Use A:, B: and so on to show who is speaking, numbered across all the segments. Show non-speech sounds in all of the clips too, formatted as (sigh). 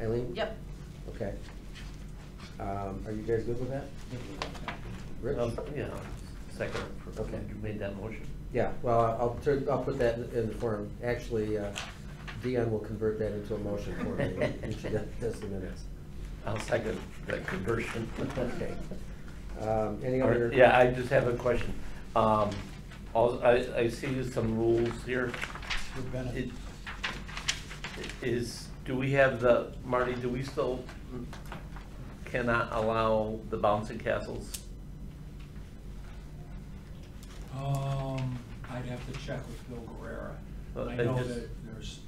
A: Eileen?
B: Yep.
A: Okay. Um, are you guys good with that? Rich?
C: Um, Yeah, second, okay,
A: Okay.
C: you made that motion.
A: Yeah, well, I'll turn, I'll put that in the form. Actually, uh, Dion will convert that into a motion for me when she does the minutes.
C: I'll second that (laughs) conversion.
A: Okay. Um, any
C: Or-
A: other?
C: Yeah, I just have a question. Um, all- I, I see some rules here.
D: We've been-
C: It- Is, do we have the, Marty, do we still cannot allow the bouncing castles?
D: Um, I'd have to check with Bill Guerrera.
C: Well,
D: I
C: they
D: know
C: just-
D: that there's,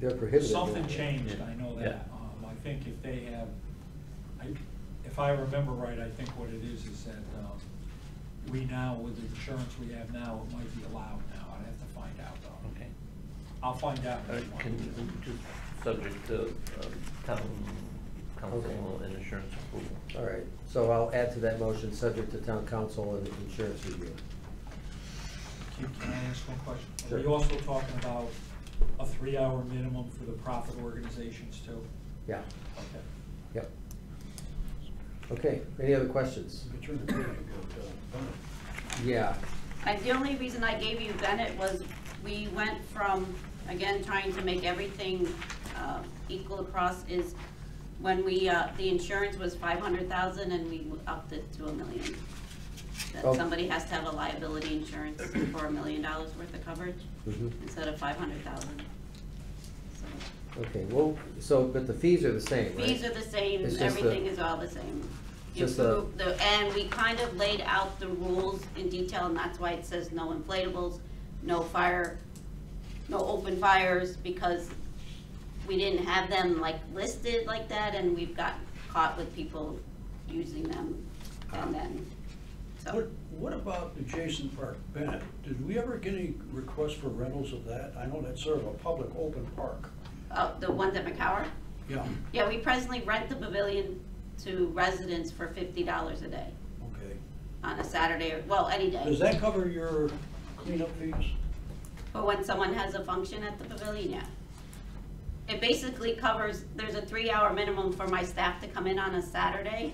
D: there-
A: They're prohibited.
D: something changed, I know
C: Yeah.
D: that. Um, I think if they have, I, if I remember right, I think what it is is that, um, we now, with the insurance we have now, it might be allowed now. I'd have to find out though.
C: Okay.
D: I'll find out.
C: All right, Uh, Can, just subject to um, town council
A: Okay.
C: and insurance approval.
A: All right, so I'll add to that motion, subject to town council and insurance review.
D: Can can I ask one question?
A: Sure.
D: Are we also talking about a three-hour minimum for the profit organizations too?
A: Yeah,
D: Okay.
A: yep. Okay, any other questions?
E: But you're the big one,
A: Yeah,
B: And the only reason I gave you Bennett was we went from, again, trying to make everything uh, equal across is when we, uh, the insurance was five hundred thousand and we upped it to a million. That
A: Oh.
B: somebody has to have a liability insurance for a million dollars worth of coverage
A: Mhm.
B: instead of five hundred thousand.
A: okay, well, so, but the fees are the same, right?
B: Fees are the same,
A: It's just the-
B: everything is all the same. You
A: Just the-
B: approve the- And we kind of laid out the rules in detail, and that's why it says no inflatables, no fire, no open fires, because we didn't have them like listed like that, and we've got caught with people using them, and then,
E: What,
B: so.
E: what about adjacent park, Bennett? Did we ever get any requests for rentals of that? I know that's sort of a public open park.
B: Oh, the ones at McCower?
E: Yeah,
B: Yeah, we presently rent the pavilion to residents for fifty dollars a day
E: okay.
B: on a Saturday, or, well, any day.
E: Does that cover your cleanup fees?
B: But when someone has a function at the pavilion, yeah. It basically covers, there's a three-hour minimum for my staff to come in on a Saturday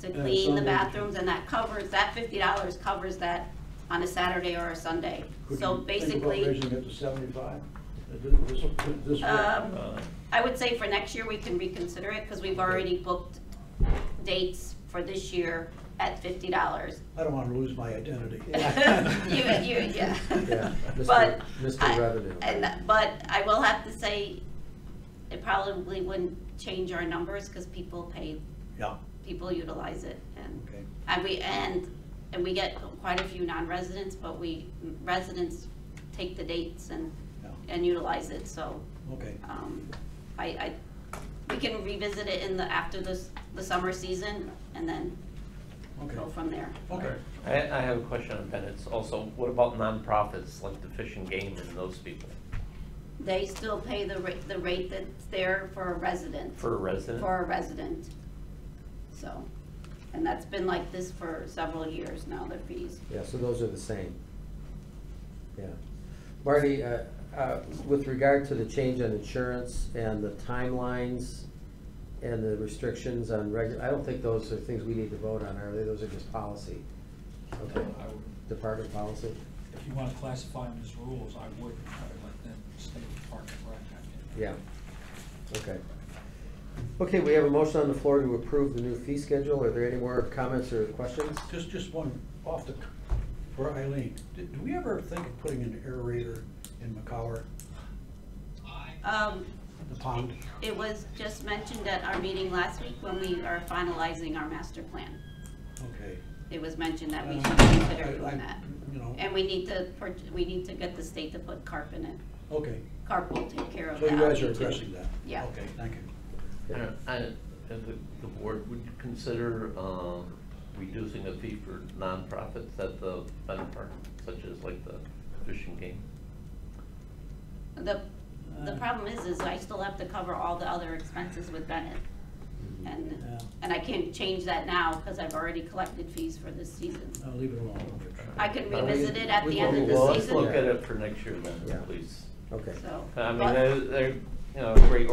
B: to
E: Yeah,
B: clean the
E: Sunday.
B: bathrooms, and that covers, that fifty dollars covers that on a Saturday or a Sunday.
E: Could
B: So
E: you Think about
B: basically,
E: raising it to seventy-five? Uh, This, this,
B: um,
C: Uh,
B: I would say for next year, we can reconsider it, because we've already booked dates for this year at fifty dollars.
E: I don't wanna lose my identity.
B: You, (laughs) you,
E: (laughs)
B: yeah.
A: Yeah, Mr.
B: But.
A: Mr.
B: I-
A: Revenue.
B: And, but I will have to say, it probably wouldn't change our numbers, because people pay,
E: Yeah,
B: people utilize it, and,
E: okay.
B: and we, and, and we get quite a few non-residents, but we, residents take the dates and,
E: Yeah.
B: and utilize it, so,
E: Okay,
B: um, I, I, we can revisit it in the, after this, the summer season, and then
E: okay,
B: go from there.
E: okay.
C: I, I have a question on Bennett's also. What about nonprofits like the Fish and Game and those people
B: They still pay the rate, the rate that's there for a resident.
C: for a resident?
B: for a resident. So, and that's been like this for several years now, the fees.
A: Yeah, so those are the same. Yeah. Marty, uh, uh, with regard to the change on insurance and the timelines and the restrictions on regular, I don't think those are things we need to vote on, are they? Those are just policy. Okay,
D: I would-
A: department policy?
D: If you want to classify them as rules, I would, I would let them stay with Park and Rec. I
A: Yeah,
D: think.
A: okay. Okay, we have a motion on the floor to approve the new fee schedule. Are there any more comments or questions?
E: Just, just one off the, c- for Eileen, did, do we ever think of putting an aerator in McCower,
B: Um,
E: the pond?
B: it was just mentioned at our meeting last week when we are finalizing our master plan.
E: Okay.
B: It was mentioned that we
E: Uh,
B: should consider
E: I- I-
B: doing that.
E: You know,
B: And we need to, pur- we need to get the state to put carp in it.
E: okay,
B: Carp will take care of
E: so
B: that.
E: you guys are addressing that?
B: Yeah.
E: Okay, thank you.
C: Yeah, I, and the, the board, would you consider, um, reducing the fee for nonprofits at the Bennett Park, such as like the Fish and Game?
B: The, the problem is, is I still have to cover all the other expenses with Bennett. And,
E: Yeah.
B: and I can't change that now because I've already collected fees for this season.
E: I'll leave it alone.
B: I can
C: But we-
B: revisit it at
A: we
B: the end
A: can
B: of
A: do all
B: the
C: Well, let's
B: season,
C: look at it for next year
A: Yeah.
C: then, please.
A: Okay.
B: so.
C: I mean,
B: but-
C: they're, they're, you know, great